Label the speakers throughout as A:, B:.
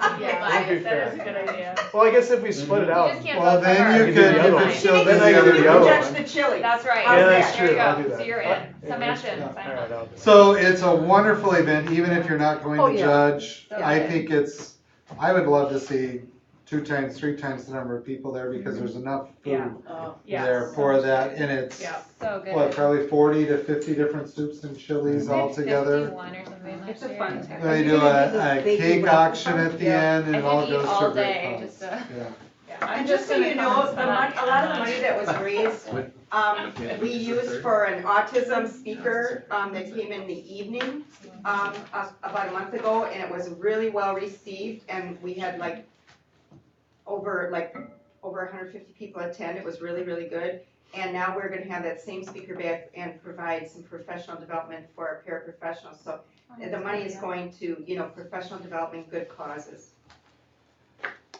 A: would be
B: That is a
A: fair.
B: good idea.
A: Well, I guess if we split it out.
B: Mm-hmm. just can't
C: Well,
B: vote for her.
C: then you
A: You did
C: could,
A: the
C: you
A: other
C: could
A: one.
C: show
A: You
C: them
A: can
C: the
A: do
C: other
A: the
C: one.
A: other one.
D: Judge the chili.
B: That's right.
A: Yeah, that's
B: There
A: true,
B: you
A: I'll do
B: go.
A: that.
B: So you're
A: Uh,
B: in.
A: yeah, that's
B: Sebastian,
A: true.
B: sign
A: Alright,
B: up.
A: I'll do that.
C: So it's a wonderful event, even if you're not going
E: Oh,
C: to
E: yeah.
C: judge. I
E: Yeah.
C: think it's, I would love to see two times, three times the number of people there because there's enough
B: Yeah.
C: food
E: Uh,
C: there
B: Yes.
C: for that. And it's,
B: Yeah.
F: So
C: what,
F: good.
C: probably forty to fifty different soups and
B: Mm-hmm.
C: chilies all together.
F: Fifty-one or something
E: It's
F: last
E: a
F: year.
E: fun
F: I
E: time.
C: They
E: You're
C: do
E: gonna
C: a,
E: do the
C: a
E: baby
C: cake
E: wrap.
C: auction at the
E: Yeah.
C: end and it all
F: could eat
C: goes to a
F: all
C: great
F: day,
C: cause.
F: just uh
C: Yeah.
B: Yeah, I'm
D: And just so
B: gonna
D: you
B: comment
D: know, the
B: on
D: mon, a lot of the
B: that.
D: money that was raised, um, we used for an autism speaker, um, that came in the evening, um, a- about a month ago, and it was really well received, and we had like over, like, over hundred fifty people attend, it was really, really good. And now we're gonna have that same speaker back and provide some professional development for our paraprofessionals, so the money is going to, you know, professional development, good causes.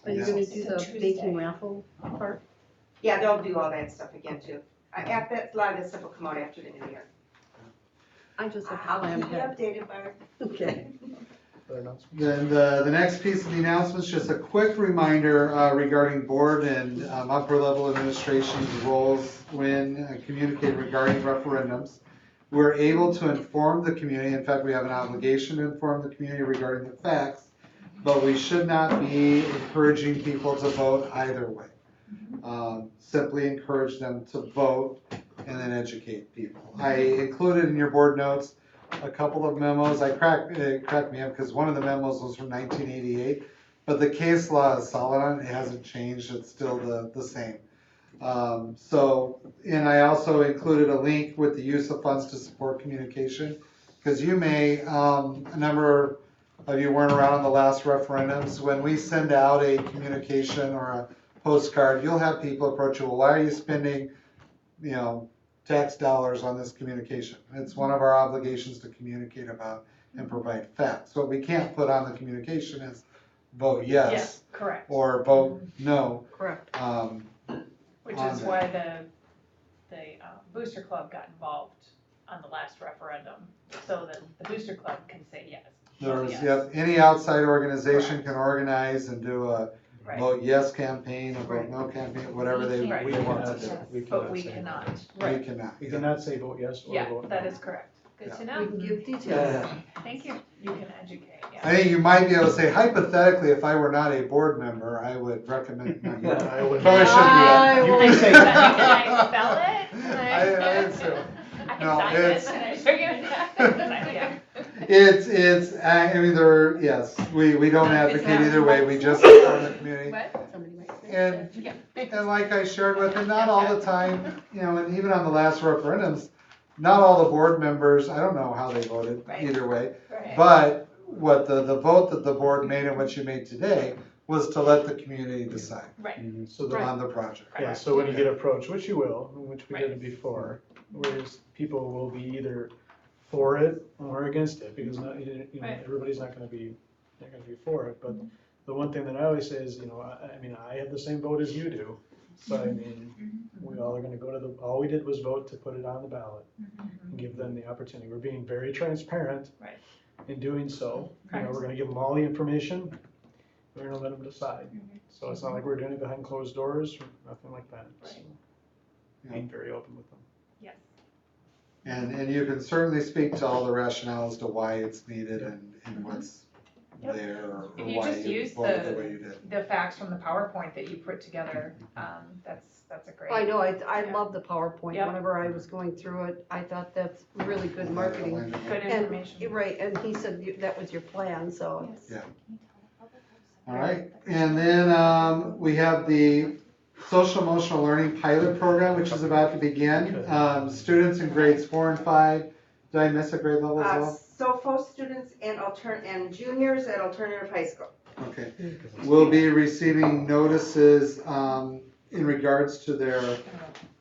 E: Are you
C: Yeah.
E: gonna do
F: It's a
E: the
F: Tuesday.
E: baking raffle part?
D: Yeah, they'll do all that stuff again too. I, I bet a lot of this stuff will come out after the new year.
E: I just have to
D: I'll
E: plan
D: keep you
E: ahead.
D: updated, Barb.
E: Okay.
A: Other announcements?
C: Then the, the next piece of the announcements, just a quick reminder uh, regarding board and um, upper level administration's roles when uh, communicating regarding referendums. We're able to inform the community, in fact, we have an obligation to inform the community regarding the facts, but we should not be encouraging people to vote either way. Um, Simply encourage them to vote and then educate people. I included in your board notes a couple of memos, I cracked, it cracked me up, because one of the memos was from nineteen eighty-eight, but the case law is solid on it, it hasn't changed, it's still the, the same. Um, so, and I also included a link with the use of funds to support communication, because you may, um, a number of you weren't around in the last referendums, when we send out a communication or a postcard, you'll have people approach you, well, why are you spending, you know, tax dollars on this communication. It's one of our obligations to communicate about and provide facts. What we can't put on the communication is vote yes
B: Correct,
C: or vote no.
E: Correct.
C: Um,
B: which
C: on
B: is
C: that.
B: why the, the uh, Booster Club got involved on the last referendum, so that the Booster Club can say yes.
C: There's,
B: Yes.
C: yep, any outside organization can organize and do a
B: Right.
C: vote yes campaign, a vote
E: Right.
C: no campaign, whatever they,
B: Right.
C: they
A: We
C: want
A: cannot,
C: to do.
A: we cannot
B: But we
A: say-
B: cannot,
C: We
B: right,
C: cannot.
A: We cannot say vote yes or
B: yeah,
A: vote no.
B: that is correct. Good to
E: We
B: know,
E: can give details.
C: Yeah.
F: Thank you.
B: you can educate, yeah.
C: I think you might be able to say hypothetically, if I were not a board member, I would recommend. no, you-
A: I would-
C: Probably shouldn't do that.
A: You can say
B: Can
A: that.
B: I spell it? Can
C: I- I didn't spell it.
B: I
C: No,
B: can sign
C: it's-
B: this, and I figure it out. Yeah.
C: It's, it's, I I mean, there, yes, we, we don't advocate either way, we just inform the community.
E: Somebody might say
C: And,
E: that.
C: and like I shared with him, not all the time, you know, and even on the last referendums, not all the board members, I don't know how they voted
B: Right.
C: either way,
B: Right.
C: but what the, the vote that the board made and what you made today was to let the community decide
B: Right,
A: So the,
C: on the project.
A: yeah, so when you get approached, which you will, which we did before, whereas people will be either for it or against it, because not, you know,
B: Right.
A: everybody's not gonna be, not gonna be for it, but the one thing that I always say is, you know, I, I mean, I have the same vote as you do, so I mean,
B: Mm-hmm.
A: we all are gonna go to the, all we did was vote to put it on the ballot and give them the opportunity. We're being very transparent.
B: Right.
A: In doing so, you know, we're gonna give them all the information, we're gonna let them decide.
B: Mhm.
A: So it's not like we're doing it behind closed doors, or nothing like that. So
B: Right.
A: Being very open with them.
B: yes.
C: And, and you can certainly speak to all the rationale as to why it's needed and, and what's
B: Mm-hmm. Yep.
C: there or
B: If you
C: why
B: just
C: you
B: use
C: voted
B: the-
C: the way you did.
B: The facts from the PowerPoint that you put together, um, that's, that's a great.
E: I know, I, I
B: Yeah.
E: love the PowerPoint.
B: Yep.
E: Whenever I was going through it, I thought that's really good marketing.
B: Good
E: And-
B: information.
E: You're Right, and he said you- that was your plan, so.
C: All right, and then um, we have the social emotional learning pilot program, which is about to begin. Um, Students in grades four and five, did I miss a grade level as
D: Uh,
C: well?
D: SOFO students and altern, and juniors at alternative high school.
C: Okay, will be receiving notices um, in regards to their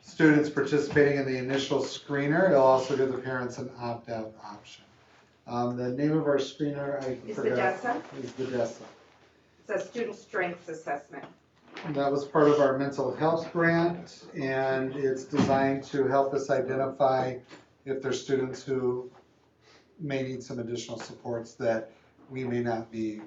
C: students participating in the initial screener. It'll also give the parents an opt-out option. Um, The name of our screener, I
D: Is
C: forgot.
D: Vedessa,
C: Is Vedessa.
D: it's a student strengths assessment.
C: And That was part of our mental health grant, and it's designed to help us identify if there's students who may need some additional supports that we may not be